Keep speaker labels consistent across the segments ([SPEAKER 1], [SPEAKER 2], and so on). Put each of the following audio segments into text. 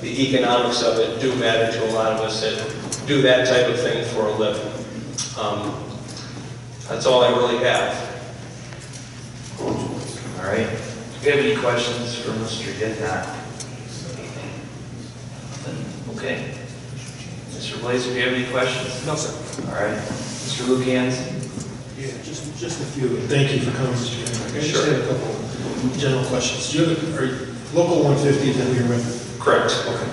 [SPEAKER 1] the economics of it do matter to a lot of us that do that type of thing for a living. Um, That's all I really have.
[SPEAKER 2] All right. Do you have any questions for Mr. Gethat? Okay. Mr. Blazer, do you have any questions? No, sir. All right. Mr. Lukan's?
[SPEAKER 3] Yeah, just, just a few. Thank you for coming, Mr. Kenrick. I just had a couple general questions. Do you have, are, you- local 150 is in your record?
[SPEAKER 1] Correct.
[SPEAKER 3] Okay.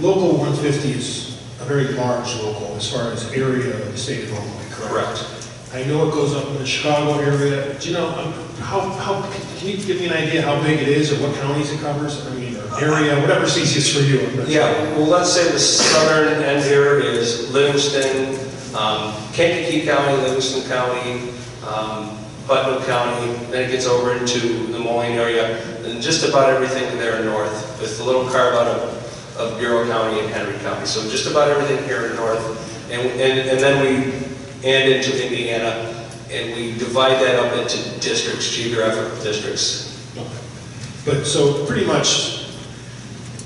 [SPEAKER 3] Local 150 is a very large local as far as area of the state of Illinois, correct?
[SPEAKER 1] Correct.
[SPEAKER 3] I know it goes up in the Chicago area. Do you know, um, how, how, can you give me an idea how big it is or what counties it covers? I mean, or area, whatever's easiest for you. I'm not sure.
[SPEAKER 1] Yeah, well, let's say the southern end here is Livingston, um, Kankakee County, Livingston County, um, Putnam County, then it gets over into the Moline area, and just about everything there north, with a little carve out of, of Bureau County and Henry County. So just about everything here in north, and, and, and then we, and into Indiana, and we divide that up into districts, geographic districts.
[SPEAKER 3] But, so pretty much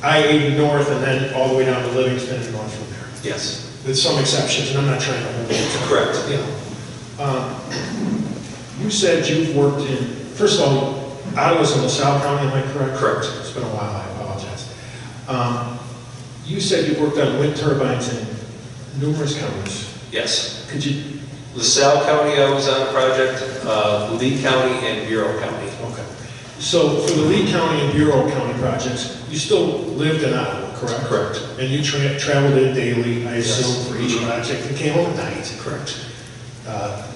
[SPEAKER 3] I-80 north and then all the way down to Livingston and on from there.
[SPEAKER 1] Yes,
[SPEAKER 3] with some exceptions, and I'm not trying to hold it.
[SPEAKER 1] correct.
[SPEAKER 3] Yeah. Um, You said you've worked in, first of all, Ottawa's in LaSalle County, am I correct?
[SPEAKER 1] Correct.
[SPEAKER 3] It's been a while, I apologize. Um, You said you worked on wind turbines in numerous counties.
[SPEAKER 1] Yes.
[SPEAKER 3] Could you,
[SPEAKER 1] LaSalle County, I was on a project, uh, Lee County and Bureau County.
[SPEAKER 3] okay. So for the Lee County and Bureau County projects, you still lived in Ottawa, correct?
[SPEAKER 1] Correct.
[SPEAKER 3] And you tra- traveled in daily, I
[SPEAKER 1] Yes.
[SPEAKER 3] assume, for each project, and came home at night?
[SPEAKER 1] Correct.
[SPEAKER 3] Uh,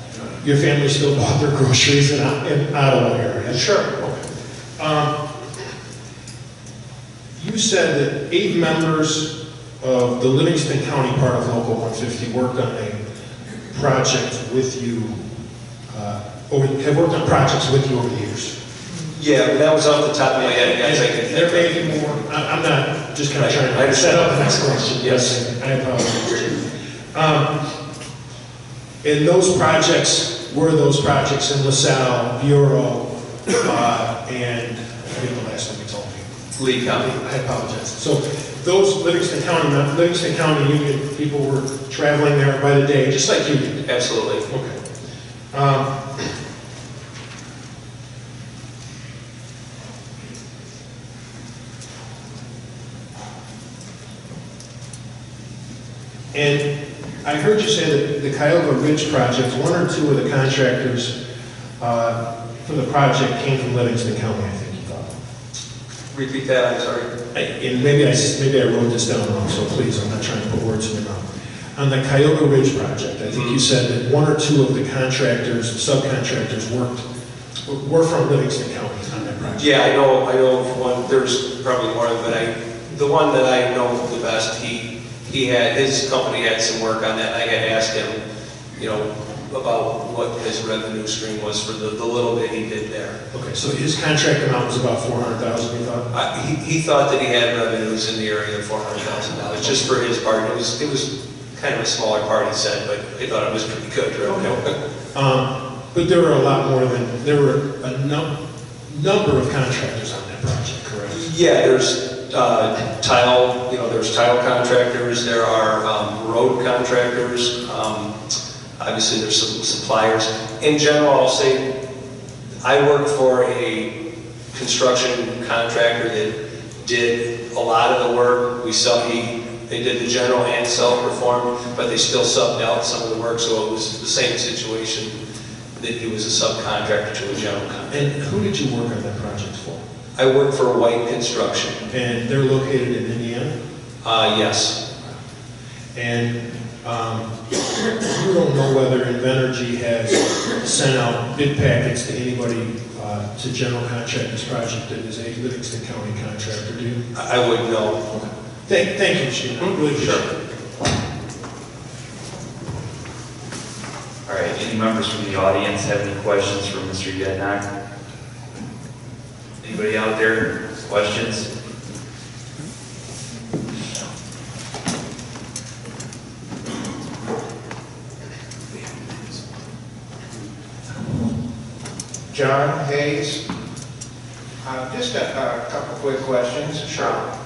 [SPEAKER 3] Your family still bought their groceries in in Ottawa area? Sure. You said that eight members of the Livingston County part of Local 150 worked on a project with you, uh, over- have worked on projects with you over the years.
[SPEAKER 1] Yeah, but that was off the top of my head, guys, I can
[SPEAKER 3] And There may
[SPEAKER 1] think
[SPEAKER 3] be more, I- I'm not, just kind of
[SPEAKER 1] I
[SPEAKER 3] trying to
[SPEAKER 1] understand.
[SPEAKER 3] set up the next question.
[SPEAKER 1] Yes.
[SPEAKER 3] I apologize. Um, And those projects, were those projects in LaSalle, Bureau, uh, and, I forget the last one you told me.
[SPEAKER 1] of. Lee County.
[SPEAKER 3] I apologize. So those Livingston County, Livingston County Union people were traveling there by the day, just like you did.
[SPEAKER 1] Absolutely.
[SPEAKER 3] Okay. Um, And I heard you say that the Cuyahoga Ridge project, one or two of the contractors uh, for the project came from Livingston County, I think you thought.
[SPEAKER 1] Repeat that, I'm sorry.
[SPEAKER 3] I- And maybe I, s- maybe I wrote this down wrong, so please, I'm not trying to put words in your mouth. On the Cuyahoga Ridge project, I think you said that one or two of the contractors, subcontractors worked, were from Livingston County on that project.
[SPEAKER 1] Yeah, I know, I know of one, there's probably more, but I, the one that I know the best, he, he had, his company had some work on that, and I had asked him, you know, about what his revenue stream was for the, the little bit he did there.
[SPEAKER 3] Okay, so his contract amount was about four hundred thousand, you thought?
[SPEAKER 1] I- He he thought that he had revenues in the area of $400,000, just for his part. It was, it was kind of a smaller part, he said, but he thought it was pretty good revenue.
[SPEAKER 3] Um, But there were a lot more than, there were a num, number of contractors on that project, correct?
[SPEAKER 1] Yeah, there's uh, tile, you know, there's tile contractors, there are um, road contractors, um, obviously there's some suppliers. In general, I'll say, I worked for a construction contractor that did a lot of the work. We sub, he, they did the general and self-performed, but they still subbed out some of the work, so it was the same situation that he was a subcontractor to a general contractor.
[SPEAKER 3] And who did you work on that project for?
[SPEAKER 1] I worked for White Construction,
[SPEAKER 3] And they're located in Indiana?
[SPEAKER 1] Uh, yes.
[SPEAKER 3] And um, you don't know whether Invenergy has sent out bid packets to anybody, uh, to general contractors project that is a Livingston County contractor, do you?
[SPEAKER 1] I I would know.
[SPEAKER 3] Thank, thank you, Sheena, I really appreciate it.
[SPEAKER 2] All right, any members from the audience have any questions for Mr. Gethat? Anybody out there, questions?
[SPEAKER 4] John Hayes. Uh, Just a a couple quick questions. Sure.